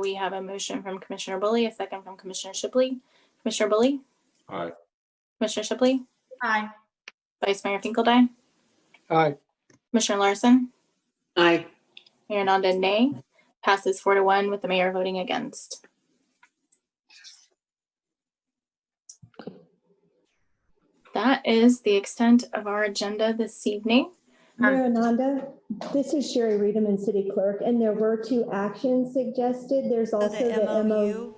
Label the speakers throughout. Speaker 1: We have a motion from Commissioner Bully, a second from Commissioner Shipley. Commissioner Bully,
Speaker 2: Aye.
Speaker 1: Commissioner Shipley,
Speaker 3: Aye.
Speaker 1: Vice Mayor Finkeldine,
Speaker 4: Aye.
Speaker 1: Commissioner Larson,
Speaker 5: Aye.
Speaker 1: Mayor Nanda, nay. Passes four to one with the mayor voting against. That is the extent of our agenda this evening.
Speaker 3: Um,
Speaker 6: Mayor Ananda, this is Sherry Reederman, City Clerk, and there were two actions suggested. There's
Speaker 7: So
Speaker 6: also the MOU.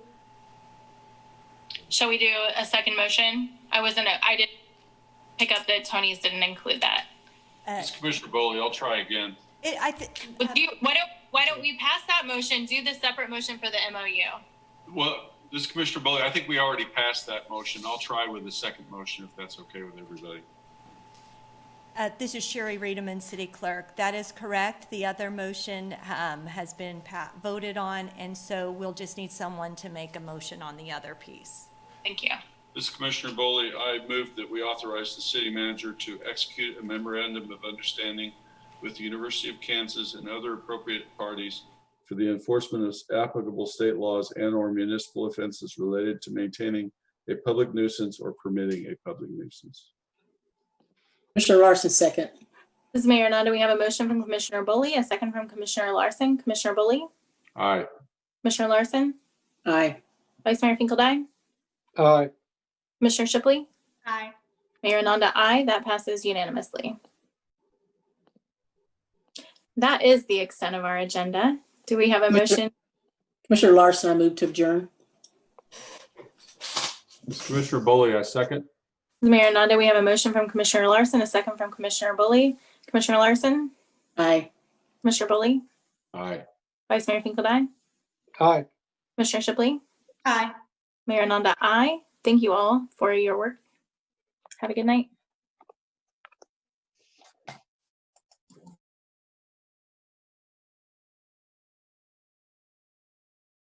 Speaker 1: Shall we do a second motion? I wasn't, I didn't pick up that Tony's didn't include that.
Speaker 7: uh,
Speaker 2: It's Commissioner Bowley. I'll try again.
Speaker 7: It, I think,
Speaker 1: Well, do you, why don't, why don't we pass that motion, do the separate motion for the MOU?
Speaker 2: Well, this is Commissioner Bowley, I think we already passed that motion. I'll try with the second motion if that's okay with everybody.
Speaker 7: uh, this is Sherry Reederman, City Clerk. That is correct. The other motion, um, has been pa- voted on, and so we'll just need someone to make a motion on the other piece.
Speaker 1: Thank you.
Speaker 2: This is Commissioner Bowley. I move that we authorize the city manager to execute a memorandum of understanding with the University of Kansas and other appropriate parties for the enforcement of applicable state laws and or municipal offenses related to maintaining a public nuisance or permitting a public nuisance.
Speaker 5: Commissioner Larson, second.
Speaker 1: This is Mayor Nanda. We have a motion from Commissioner Bully, a second from Commissioner Larson. Commissioner Bully,
Speaker 2: Aye.
Speaker 1: Commissioner Larson,
Speaker 5: Aye.
Speaker 1: Vice Mayor Finkeldine,
Speaker 4: Aye.
Speaker 1: Commissioner Shipley,
Speaker 3: Aye.
Speaker 1: Mayor Nanda, aye. That passes unanimously. That is the extent of our agenda. Do we have a motion?
Speaker 5: Commissioner Larson, I move to adjourn.
Speaker 2: Commissioner Bowley, I second.
Speaker 1: Mayor Nanda, we have a motion from Commissioner Larson, a second from Commissioner Bully. Commissioner Larson,
Speaker 5: Aye.
Speaker 1: Commissioner Bully,
Speaker 2: Aye.
Speaker 1: Vice Mayor Finkeldine,
Speaker 4: Aye.
Speaker 1: Commissioner Shipley,
Speaker 3: Aye.
Speaker 1: Mayor Nanda, I Thank you all for your work. Have a good night.